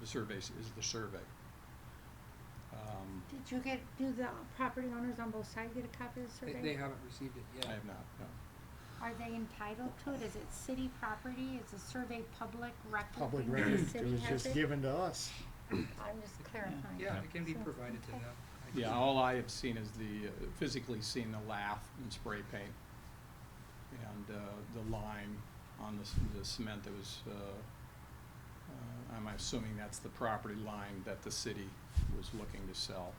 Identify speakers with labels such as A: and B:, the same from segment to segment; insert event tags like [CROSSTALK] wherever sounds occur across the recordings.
A: the surveys is the survey. Um,
B: Did you get, do the property owners on both sides get a copy of the
C: They,
B: survey?
C: they haven't received it yet.
A: I have not, no.
B: Are they entitled to it? Is it city property? Is the survey public record?
D: public
B: thing? Does
D: record,
B: the
D: it
B: city
D: was
B: has
D: just
B: it?
D: given to us.
B: I'm just clarifying.
C: Yeah, it can be
B: So,
C: provided to
B: okay.
C: them. I
A: Yeah,
C: just-
A: all I have seen is the, uh, physically seen the lath and spray paint and uh, the lime on the s- the cement that was, uh, uh, I'm assuming that's the property line that the city was looking to sell.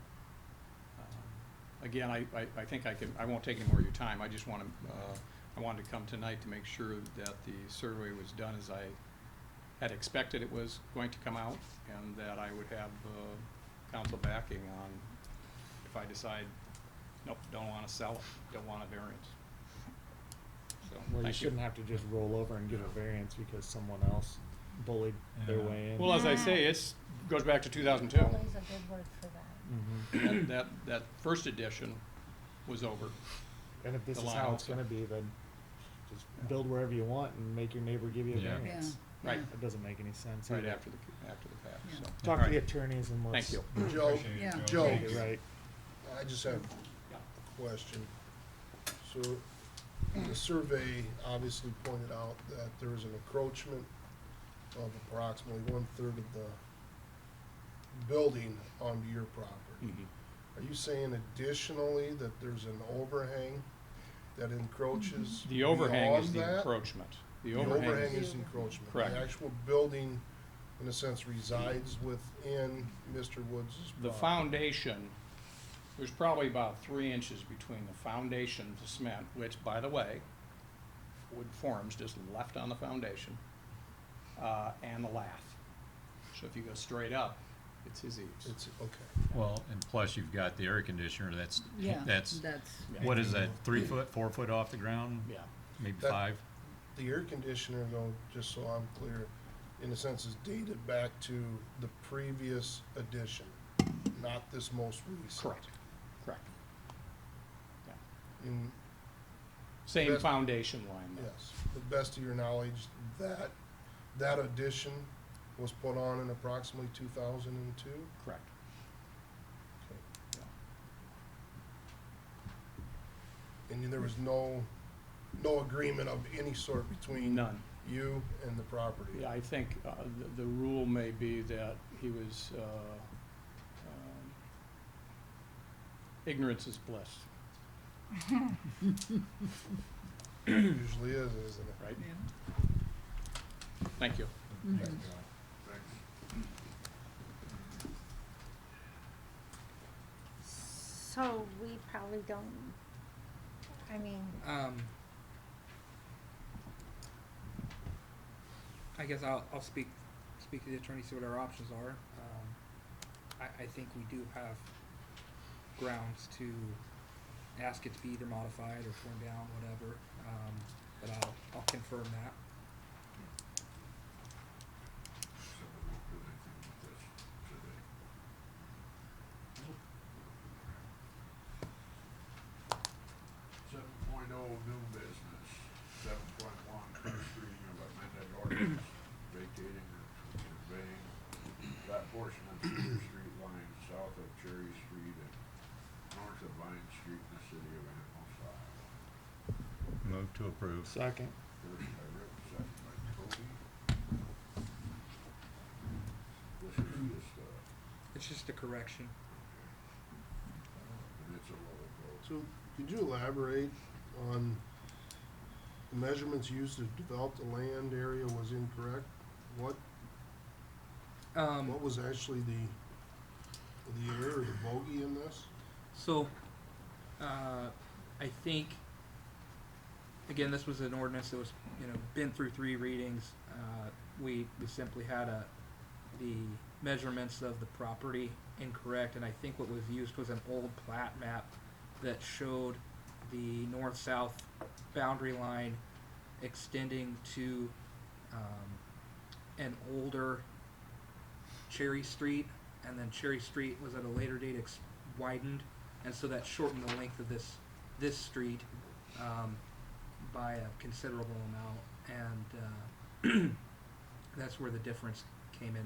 A: Um, Again, I, I- I think I can, I won't take any more of your time. I just want to, I wanted to come tonight to make sure that the survey was done as I had expected it was going to come out and that I would have uh, council backing on if I decide, nope, don't want to sell, it, don't want a variance. So,
D: Well, you
A: thank you.
D: shouldn't have to just roll over and get a variance because someone else bullied their
E: Yeah.
D: way in.
A: Well, as I say, it's, goes back to two thousand two.
B: Bully's a good word for that.
A: That,
D: Mhm.
A: that, that first edition was over.
D: And if this
A: The
D: is
A: line
D: how it's
A: also.
D: gonna be, then just
A: Yeah.
D: build wherever you want and make your neighbor give you a
E: Yeah. Yeah.
D: variance.
A: Right.
D: That doesn't make any sense.
A: Right
D: either.
A: after the, after the fact, so.
D: Talk to
A: Alright,
D: the attorneys and let's.
A: Thank you.
F: Joe,
E: Appreciate it,
G: Yeah.
D: get
F: Joe.
D: it Right.
F: I just have
A: Yeah.
F: a question. So, the survey obviously pointed out that there is an encroachment of approximately one-third of the building onto your property.
A: Mhm.
F: Are you saying additionally that there's an overhang that encroaches
A: The overhang is
F: beyond
A: the
F: that?
A: encroachment. The
F: The
A: overhang,
F: overhang
A: is-
F: is encroachment.
A: Correct.
F: The actual building, in a sense, resides within Mr. Woods' property.
A: the foundation, there's probably about three inches between the foundation of the cement, which, by the way, wood forms just left on the foundation, uh, and the lath. So if you go straight up, it's his eaves.
F: It's, okay.
E: Well, and plus you've got the air conditioner, that's,
G: Yeah,
E: that's,
G: that's,
E: what is that, three foot, four foot off the ground?
A: Yeah.
E: Maybe
F: That-
E: five?
F: The air conditioner, though, just so I'm clear, in a sense is dated back to the previous edition, not this most recent.
A: Correct, correct. Yeah.
F: In,
A: Same
F: That's-
A: foundation line though.
F: yes, the best of your knowledge, that, that edition was put on in approximately two thousand and two?
A: Correct.
F: And there was no, no agreement of any sort between
A: None.
F: you and the property?
A: Yeah, I think uh, th- the rule may be that he was, uh, um, ignorance is bliss,
F: Usually is, isn't it?
A: right?
G: yeah.
A: Thank you.
B: So we probably don't, I mean,
C: Um, I guess I'll, I'll speak, speak to the attorney, see what our options are. Um, I, I think we do have grounds to ask it to be either modified or torn down, whatever, um, but I'll, I'll confirm that.
H: Seven point oh new business, seven point one, first reading of amended ordinance vacating and conveying that portion of Cedar Street line south of Cherry Street and north of Vine Street in the city of Annapolis, Iowa.
E: Move to approve.
D: Second.
H: First by Rick, second by Toby. This is just, uh,
C: It's just a correction.
H: and it's a roll call.
F: So, could you elaborate on the measurements used to develop the land area was incorrect? What,
C: Um,
F: what was actually the, the error, the bogey in this?
C: So, uh, I think, again, this was an ordinance that was, you know, been through three readings. Uh, we, we simply had a, the measurements of the property incorrect, and I think what was used was an old plat map that showed the north-south boundary line extending to, um, an older Cherry Street, and then Cherry Street was at a later date ex- widened, and so that shortened the length of this this street um, by a [CLEARS THROAT] considerable amount, and uh, that's where the difference came in.